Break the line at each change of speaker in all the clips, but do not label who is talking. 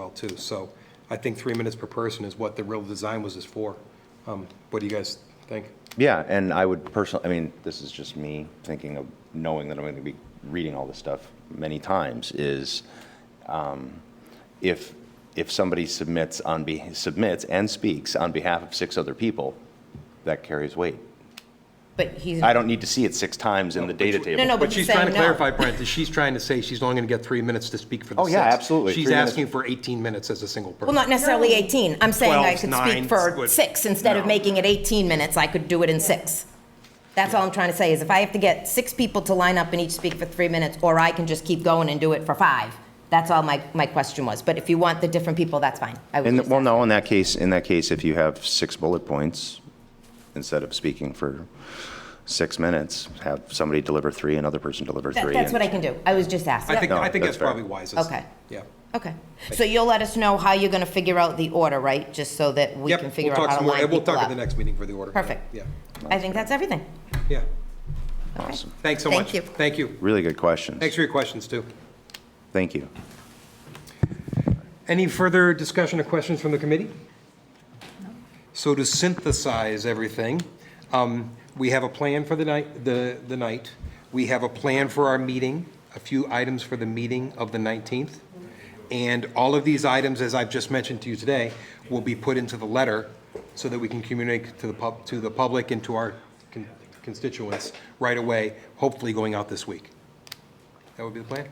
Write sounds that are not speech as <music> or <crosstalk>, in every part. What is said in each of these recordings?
well, too. So I think three minutes per person is what the real design was is for. Um, What do you guys think?
Yeah, and I would personally, I mean, this is just me thinking of knowing that I'm going to be reading all this stuff many times is um, if if somebody submits on be, submits and speaks on behalf of six other people, that carries weight.
But he's,
I don't need to see it six times in the data table.
No, but
But
he's
she's trying to
saying no.
clarify, Brent, that she's trying to say she's only going to get three minutes to speak for the
Oh,
six.
yeah, absolutely.
She's
Three minutes.
asking for 18 minutes as a single person.
well, not necessarily 18. I'm saying I
12,
could
nine,
speak for
would-
six. Instead of
no.
making it 18 minutes, I could do it in six. That's all I'm trying to say, is if I have to get six people to line up and each speak for three minutes, or I can just keep going and do it for five. That's all my, my question was. But if you want the different people, that's fine. I would
In the,
just-
well, no, in that case, in that case, if you have six bullet points, instead of speaking for six minutes, have somebody deliver three, another person deliver
That-
three.
That's
and-
what I can do. I was just asking.
I think, I think that's
No, that's fair.
probably wisest.
Okay.
Yeah.
Okay. So you'll let us know how you're going to figure out the order, right? Just so that we
Yep,
can
we'll
figure
talk
out how
some
to
more.
line
We'll
people
talk at the
up.
next meeting for the order.
Perfect.
Yeah,
I think that's everything.
yeah.
Okay.
Awesome.
Thanks so
Thank
much.
you.
Thank you.
Really good questions.
Thanks for your questions, too.
Thank you.
Any further discussion or questions from the committee? So to synthesize everything, um, we have a plan for the night, the, the night. We have a plan for our meeting, a few items for the meeting of the 19th. And all of these items, as I've just mentioned to you today, will be put into the letter so that we can communicate to the pub, to the public and to our con- constituents right away, hopefully going out this week. That would be the plan?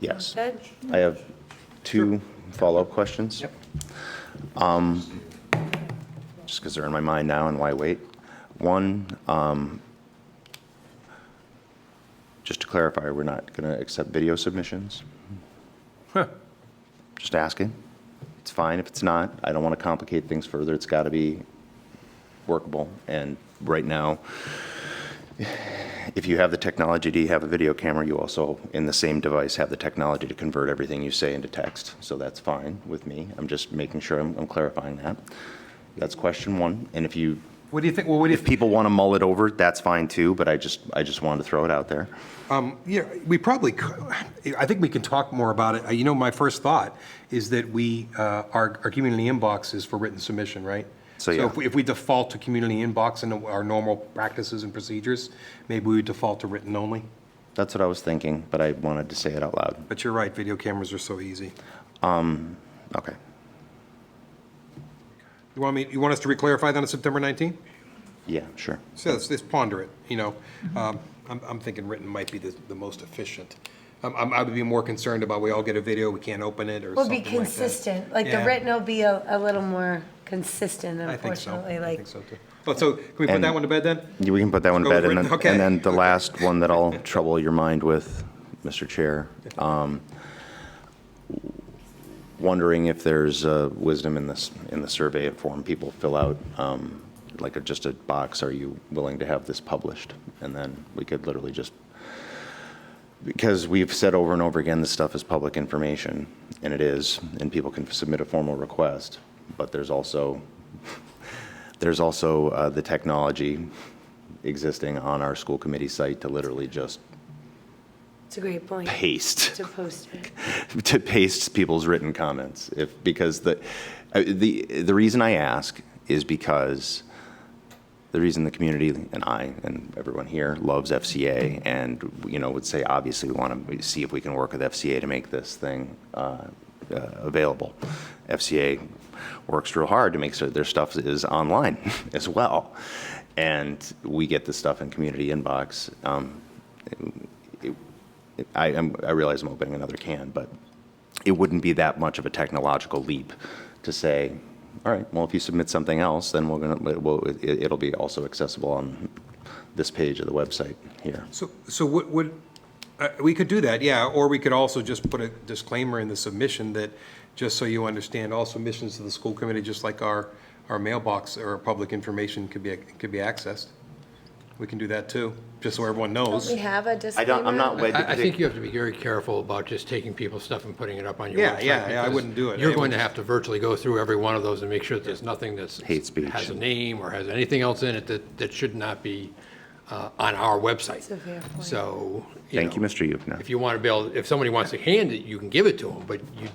Yes.
Good.
I have two follow-up questions. Um, just because they're in my mind now and why wait? One, um, just to clarify, we're not going to accept video submissions? Just asking. It's fine if it's not. I don't want to complicate things further. It's got to be workable. And right now, if you have the technology to have a video camera, you also, in the same device, have the technology to convert everything you say into text. So that's fine with me. I'm just making sure I'm I'm clarifying that. That's question one. And if you,
What do you think, well, what do you?
if people want to mull it over, that's fine too, but I just, I just wanted to throw it out there.
Yeah, we probably, c- I think we can talk more about it. You know, my first thought is that we, uh, our, our community inbox is for written submission, right? So
So, yeah.
if we, if we default to community inbox and our normal practices and procedures, maybe we would default to written only.
That's what I was thinking, but I wanted to say it out loud.
But you're right, video cameras are so easy.
Okay.
You want me, you want us to reclarify that on September 19th?
Yeah, sure.
So let's, let's ponder it, you know.
Mm-hmm.
Um, I'm, I'm thinking written might be the, the most efficient. I'm, I'm- I would be more concerned about we all get a video, we can't open it or
Will
something
be
like that.
consistent, like the
Yeah.
written will be a, a little more consistent,
I think so.
unfortunately,
I
like.
think so, too. Oh, so can we put
And-
that one to bed then?
Yeah, We can put that one to
Go
bed.
with
And then,
written, okay.
and then
<laughs>
the last one that I'll trouble your mind with, Mr. Chair. um, Wondering if there's uh, wisdom in this, in the survey form people fill out, um, like a- just a box, are you willing to have this published? And then we could literally just, because we've said over and over again, this stuff is public information, and it is, and people can submit a formal request, but there's also, there's also uh, the technology existing on our school committee site to literally just
It's a great point
paste,
to post
<laughs>
it.
to paste people's written comments. If, because the, uh, the, the reason I ask is because the reason the community and I and everyone here loves FCA and, you know, would say, obviously, we want to see if we can work with FCA to make this thing uh, uh, available. FCA works real hard to make sure their stuff is online <laughs> as well. And we get the stuff in community inbox. Um, it- it- I, am- I realize I'm opening another can, but it wouldn't be that much of a technological leap to say, all right, well, if you submit something else, then we're gonna, we'll, it, it'll be also accessible on this page of the website here.
So, so what would, uh, we could do that, yeah, or we could also just put a disclaimer in the submission that, just so you understand, all submissions to the school committee, just like our, our mailbox or our public information could be, could be accessed. We can do that too, just so everyone
Don't
knows.
we have a
I
disclaimer?
don't, I'm not wed to
I, I
particular.
think you have to be very careful about just taking people's stuff and putting it up on your
Yeah,
website.
yeah, yeah, I
because
wouldn't do it.
You're
I
going to
would-
have to virtually go through every one of those and make sure that there's nothing that's.
Hate speech.
Has a name or has anything else in it that, that should not be uh, on our website.
a fair point.
So.
Thank you,
know,
Mr. Yupna.
If you want to be able, if somebody wants to hand it, you can give it to them, but you